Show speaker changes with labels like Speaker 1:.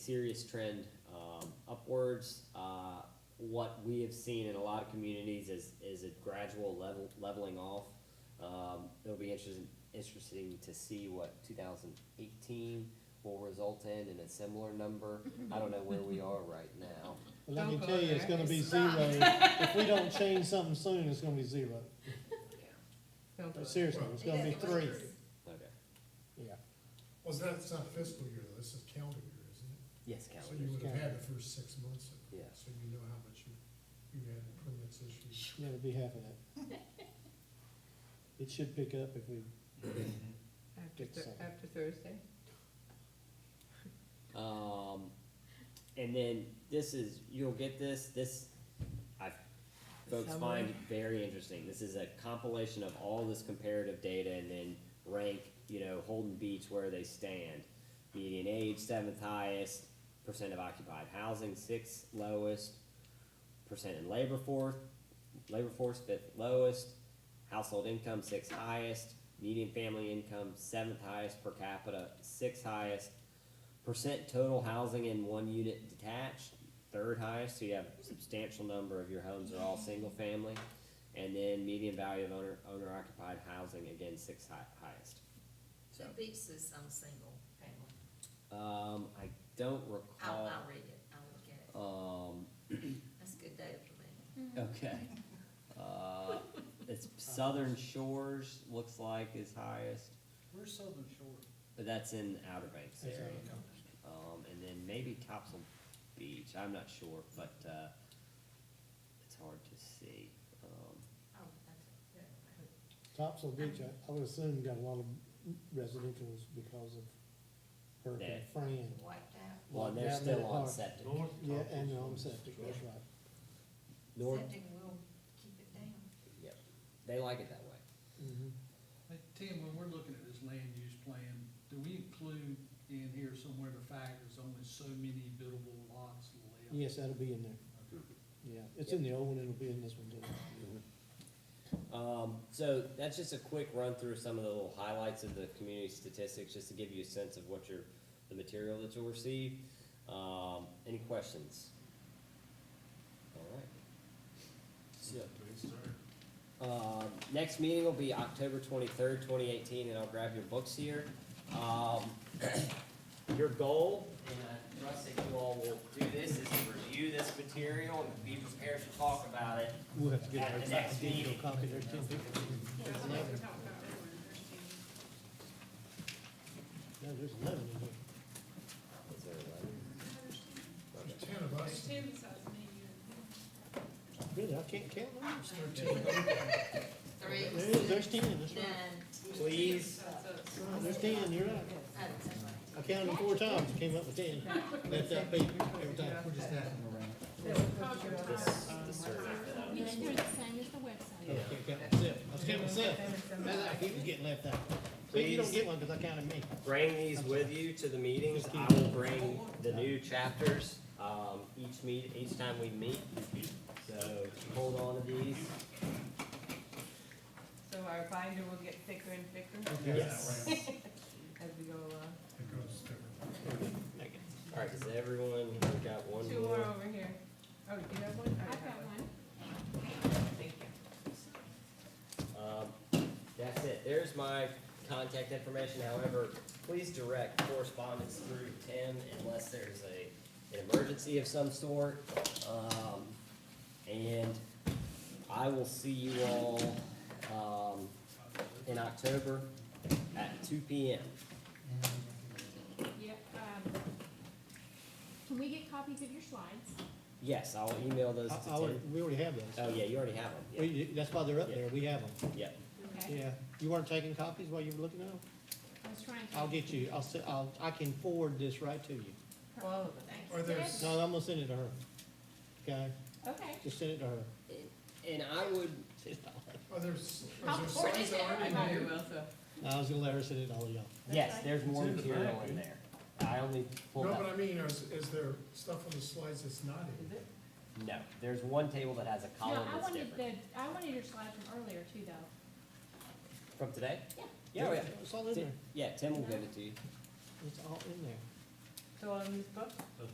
Speaker 1: serious trend um, upwards. Uh, what we have seen in a lot of communities is is a gradual level leveling off. Um, it'll be interesting interesting to see what 2018 will result in in a similar number. I don't know where we are right now.
Speaker 2: Well, let
Speaker 3: Don't
Speaker 2: me
Speaker 3: go
Speaker 2: tell you,
Speaker 3: there.
Speaker 2: it's gonna be
Speaker 3: It's
Speaker 2: zero.
Speaker 3: not.
Speaker 2: If we don't change something soon, it's gonna be zero.
Speaker 3: Don't do it.
Speaker 2: Seriously, it's gonna be
Speaker 3: It
Speaker 2: three.
Speaker 3: is.
Speaker 1: Okay.
Speaker 2: Yeah,
Speaker 4: Well, that's not fiscal year, though, this is calendar year, isn't it?
Speaker 1: Yes,
Speaker 4: So you
Speaker 1: calendar.
Speaker 4: would have had the first six months of it.
Speaker 1: Yeah.
Speaker 4: So you know how much you, you had in permits issued.
Speaker 2: yeah, it'll be half of that. It should pick up if we,
Speaker 3: After,
Speaker 2: Good
Speaker 3: Thur-
Speaker 2: song.
Speaker 3: after Thursday?
Speaker 1: Um, and then this is you'll get this. This I've folks
Speaker 3: Summary.
Speaker 1: find very interesting. This is a compilation of all this comparative data and then rank, you know, Holden Beach where they stand. Median age, seventh highest, percent of occupied housing, sixth lowest, percent in labor force, labor force fifth lowest, household income sixth highest, median family income seventh highest per capita, sixth highest, percent total housing in one unit detached, third highest, so you have a substantial number of your homes are all single family. And then median value of owner, owner occupied housing, again, sixth hi- highest. So,
Speaker 5: It beats this on single family.
Speaker 1: um, I don't
Speaker 5: I'll,
Speaker 1: recall,
Speaker 5: I'll read it, I'll look at it.
Speaker 1: um,
Speaker 5: That's good data for me.
Speaker 1: okay. Uh, it's Southern Shores, looks like is highest,
Speaker 6: Where's Southern Shore?
Speaker 1: but that's in Outer Banks
Speaker 2: That's
Speaker 1: area.
Speaker 2: Outer
Speaker 1: Um, and then maybe Topsail Beach, I'm not sure, but, uh, it's hard to see, um.
Speaker 5: Oh, that's, yeah, okay.
Speaker 2: Topsail Beach, I- I would assume got a lot of residential's because of Hurricane
Speaker 1: Yeah.
Speaker 2: Fran.
Speaker 5: wiped out.
Speaker 1: Well, and they're
Speaker 2: Down that
Speaker 1: still on
Speaker 2: part.
Speaker 1: septic.
Speaker 2: Yeah, and the home septic, that's right.
Speaker 1: North,
Speaker 5: Septic will keep it down.
Speaker 1: yep, they like it that way.
Speaker 2: Mhm.
Speaker 6: Hey, Tim, when we're looking at this land use plan, do we include in here somewhere the fact there's only so many buildable lots left?
Speaker 2: Yes, that'll be in there,
Speaker 6: Okay.
Speaker 2: yeah. It's in the old one, it'll be in this one too.
Speaker 1: Um, so that's just a quick run through some of the little highlights of the community statistics, just to give you a sense of what your, the material that you'll receive. Um, any questions? All right. So, uh, next meeting will be October twenty-third, twenty eighteen, and I'll grab your books here. Um, your goal, and I trust that you all will do this, is to review this material and be prepared to talk about it
Speaker 2: We'll have to get
Speaker 1: at the next meeting.
Speaker 2: a copy there too. No, there's eleven in there.
Speaker 1: Is there a letter?
Speaker 4: There's ten of us,
Speaker 2: Really, I can't count them.
Speaker 4: there's thirteen.
Speaker 5: Three,
Speaker 2: There is, there's
Speaker 5: six,
Speaker 2: ten, that's right.
Speaker 5: nine.
Speaker 1: Please.
Speaker 2: Right, There's ten, you're right.
Speaker 5: Oh, that's right.
Speaker 2: I counted them four times, came up with ten. That's that beat every time.
Speaker 4: We're just asking around.
Speaker 1: This, the survey that I
Speaker 7: Make
Speaker 1: just.
Speaker 7: sure it's the same as the website.
Speaker 2: I was counting myself, I was counting myself. Man, I keep getting left out. See, you don't get one because I counted me.
Speaker 1: Bring these with you to the meetings. I will bring the new chapters, um, each meet, each time we meet. So hold on to these.
Speaker 3: So our binder will get thicker and thicker
Speaker 1: Yes.
Speaker 3: as we go along.
Speaker 4: It goes different.
Speaker 1: All right, does everyone, we've got one
Speaker 3: Two more
Speaker 1: more.
Speaker 3: over here. Oh, you have one? I
Speaker 7: I've got one.
Speaker 3: Thank you.
Speaker 1: Um, that's it. There's my contact information. However, please direct correspondence through Tim unless there's a, an emergency of some sort. Um, and I will see you all, um, in October at two P M.
Speaker 7: Yep, um, Can we get copies of your slides?
Speaker 1: Yes, I'll email those
Speaker 2: I,
Speaker 1: to
Speaker 2: I
Speaker 1: Tim.
Speaker 2: would, we already have
Speaker 4: Uh,
Speaker 1: Oh,
Speaker 2: those.
Speaker 1: yeah, you already have them.
Speaker 2: We, that's why they're up there, we have them.
Speaker 1: Yeah, yeah.
Speaker 7: Okay.
Speaker 2: Yeah, you weren't taking copies while you were looking at them?
Speaker 7: I was trying to.
Speaker 2: I'll get you, I'll, se- I'll, I can forward this right to you.
Speaker 3: All of them.
Speaker 5: Thank
Speaker 4: Are
Speaker 5: you.
Speaker 4: there,
Speaker 2: No, I'm gonna send it to her. Okay,
Speaker 7: Okay.
Speaker 2: just send it to her.
Speaker 1: And I would,
Speaker 4: are there, s-
Speaker 7: How
Speaker 4: is there
Speaker 7: important
Speaker 4: signs
Speaker 7: is it?
Speaker 4: already
Speaker 3: I know
Speaker 4: made?
Speaker 3: you will, so.
Speaker 2: No, I was gonna let her send it to all of y'all.
Speaker 1: yes, there's more material in there. I only
Speaker 4: No,
Speaker 1: pulled out.
Speaker 4: but I mean, is, is there stuff on the slides that's not in?
Speaker 3: Is it?
Speaker 1: No, there's one table that has a
Speaker 7: No,
Speaker 1: column
Speaker 7: I
Speaker 1: that's
Speaker 7: wanted
Speaker 1: different.
Speaker 7: the, I wanted your slide from earlier too, though.
Speaker 1: From today?
Speaker 7: Yeah.
Speaker 1: Yeah, oh, yeah.
Speaker 2: It's all in
Speaker 1: Ti-
Speaker 2: there,
Speaker 1: Yeah, Tim will give it to you.
Speaker 2: it's all in there.
Speaker 3: Still on this book?